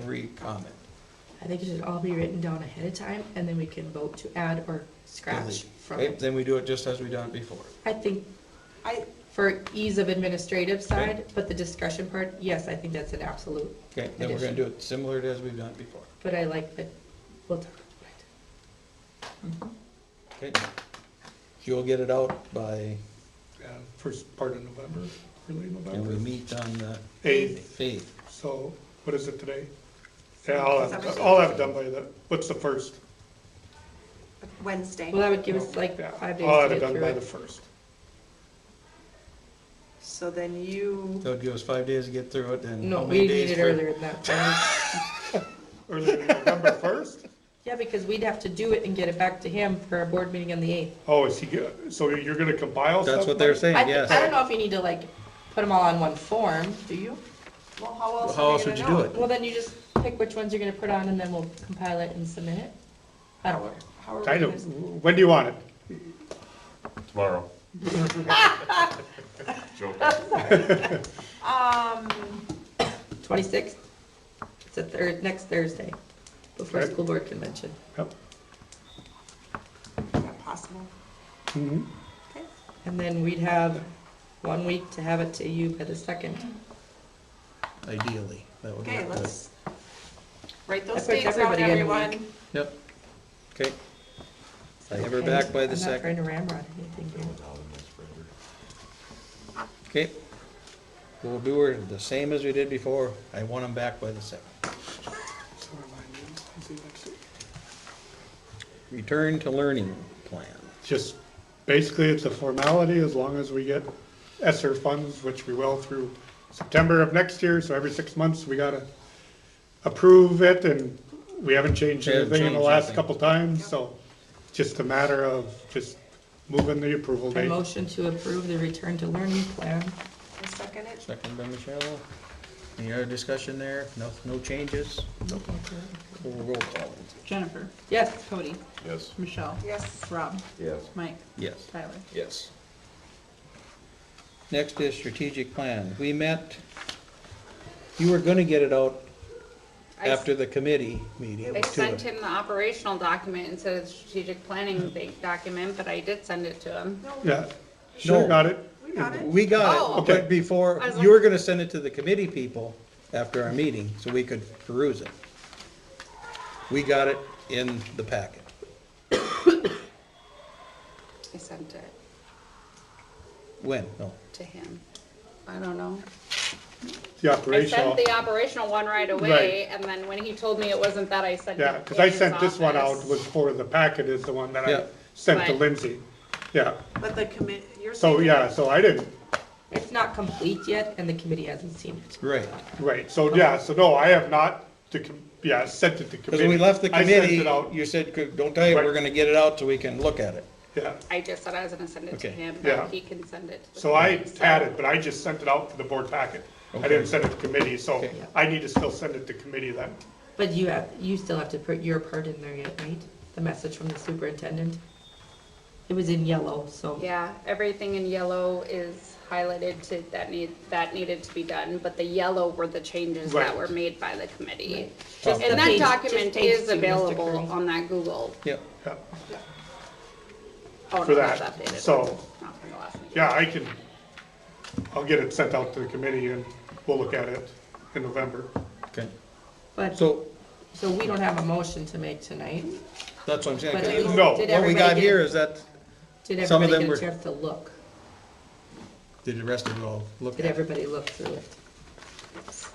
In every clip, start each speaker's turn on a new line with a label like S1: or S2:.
S1: brief comment.
S2: I think it should all be written down ahead of time, and then we can vote to add or scratch
S1: Delete.
S2: from
S1: Okay,
S2: it.
S1: Then we do it just as we done it before.
S2: I think,
S3: I,
S2: for ease of administrative
S1: Okay.
S2: side, but the discussion part, yes, I think that's an absolute,
S1: Okay, then we're gonna do it similar to as we've done it before.
S2: but I like that, we'll talk about
S1: Okay? You'll get it out by,
S4: uh, first part of November, early
S1: and we
S4: November.
S1: meet on the
S4: Eighth,
S1: eighth.
S4: so what is it today? Yeah, I'll have, I'll have it done by the, what's the first?
S3: Wednesday.
S2: it. Well, that would give us like
S1: Oh,
S4: Yeah,
S2: five days
S4: I'll
S2: to
S4: have it
S2: get
S4: done
S2: through
S4: by the
S2: it.
S4: first.
S3: So then you,
S1: So it gives us five days to get through it, then.
S2: No,
S1: how
S2: we
S1: many
S2: need
S1: days
S2: it
S1: for-
S2: earlier than that. Brian.
S4: Early November first?
S2: Yeah, because we'd have to do it and get it back to him for our board meeting on the eighth.
S4: Oh, is he, go- so you're gonna compile stuff?
S1: That's what they're
S4: Mike?
S1: saying,
S2: I, th- I don't
S1: yes.
S2: know if you need to like, put them all on one form, do you?
S3: well, how else
S1: How
S3: are
S1: else
S3: we
S1: would you
S3: gonna
S1: do
S3: know?
S1: it?
S2: Well, then you just pick which ones you're gonna put on, and then we'll compile it and submit it. I don't know.
S3: How are we
S4: Kind
S3: gonna?
S4: of, when do you want it?
S5: Tomorrow. Joking.
S3: Um,
S2: Twenty-sixth? It's a third, next Thursday, before
S4: Okay.
S2: school board convention.
S4: Yep.
S3: is that possible?
S2: Mm-hmm.
S4: Mhm.
S3: Okay,
S2: And then we'd have one week to have it to you by the second.
S1: Ideally, that would
S3: okay,
S1: work. good.
S3: let's write
S2: I put
S3: those dates out,
S2: everybody in a week.
S3: everyone.
S1: Yep. Okay. I have her back by the
S2: I'm
S1: second.
S2: not trying to ramrod anything here.
S1: Okay. We'll do her the same as we did before. I want them back by the second.
S4: So remind me, I'll see you next week.
S1: Return to learning plan.
S4: Just, basically, it's a formality as long as we get ESSER funds, which we will through September of next year, so every six months, we gotta approve it, and we haven't changed
S1: Haven't
S4: anything in the
S1: changed
S4: last
S1: anything.
S4: couple times, so it's just a matter of just moving the approval
S2: A
S4: date.
S2: motion to approve the return to learning plan.
S3: I'll second it.
S1: Second by Michelle. Any other discussion there? No, no changes? We'll roll call.
S6: Jennifer,
S2: Yes,
S6: Cody,
S5: Yes.
S6: Michelle,
S3: Yes,
S6: Rob,
S5: Yes.
S6: Mike,
S1: Yes.
S6: Tyler.
S1: Yes. Next is strategic plan. We met, you were gonna get it out
S7: I s-
S1: after the committee meeting.
S7: I
S1: to
S7: sent
S1: us.
S7: him the operational document instead of the strategic planning bank document, but I did send it to him.
S4: Yeah, sure,
S1: No.
S4: got it.
S3: we got it.
S1: We got
S7: Oh.
S1: it, but before,
S7: I was
S1: you were gonna send it to the committee people after our meeting, so we could peruse it. We got it in the packet.
S7: I sent it
S1: When? No.
S7: to him. I don't know.
S4: The
S7: I
S4: operational,
S7: sent the operational one right away, and then when he told me it wasn't that, I sent it
S4: yeah, because I sent this one out was for the packet is the one that
S1: Yeah.
S4: I sent to
S7: Right.
S4: Lindsay. Yeah,
S3: But the commit, you're saying.
S4: so, yeah, so I didn't,
S2: it's not complete yet, and the committee hasn't seen it.
S1: Right.
S4: Right, so, yeah, so no, I have not, to, com- yeah, sent it to
S1: Because when
S4: committee.
S1: we left the
S4: I sent
S1: committee,
S4: it out,
S1: you said, don't tell you, we're
S4: Right.
S1: gonna get it out so we can look at it.
S4: yeah,
S7: I just said I was gonna send it to
S1: Okay.
S7: him,
S4: Yeah.
S7: but he can send it to the.
S4: so I
S7: committee, so-
S4: had it, but I just sent it out to the board packet. I
S1: Okay.
S4: didn't send it to committee, so
S1: Okay.
S4: I need to still send it to committee then.
S2: But you have, you still have to put your part in there yet, right? The message from the superintendent? It was in yellow, so.
S7: Yeah, everything in yellow is highlighted to, that need, that needed to be done, but the yellow were the changes that
S4: Right.
S7: were made by the committee.
S2: Just the
S7: And
S2: page-
S7: that
S2: just
S7: document
S2: page
S7: is
S2: two, Mr.
S7: available
S2: Curry.
S7: on that Google.
S1: Yeah.
S4: Yeah,
S7: Oh, no,
S4: For
S7: that's
S4: that,
S7: updated.
S4: so-
S7: Not from the last meeting.
S4: Yeah, I can, I'll get it sent out to the committee and we'll look at it in November.
S1: Okay.
S2: But, so
S1: So,
S2: we don't have a motion to make tonight,
S1: that's what I'm
S2: but
S1: saying.
S2: did
S4: No.
S1: What we got
S2: everybody
S1: here
S2: get,
S1: is that,
S2: did
S1: some of
S2: everybody
S1: them
S2: get
S1: were-
S2: a chance to look?
S1: did the rest of it all look
S2: Did
S1: at? it?
S2: everybody look through it?
S1: If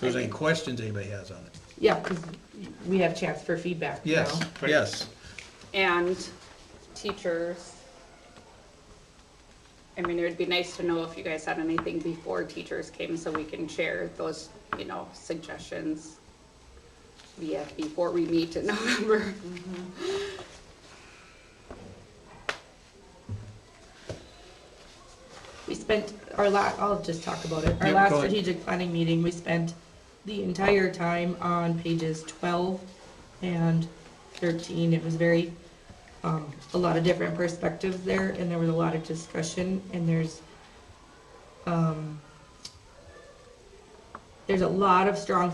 S1: there's any questions anybody has on it?
S2: Yeah, because we have chance for feedback now.
S1: Yes, yes.
S7: And teachers. I mean, it would be nice to know if you guys had anything before teachers came so we can share those, you know, suggestions. via before we meet in November.
S2: We spent our la, I'll just talk about it. Our
S1: Yeah,
S2: last
S1: go ahead.
S2: strategic planning meeting, we spent the entire time on pages twelve and thirteen. It was very, um, a lot of different perspectives there and there was a lot of discussion and there's, um, there's a lot of strong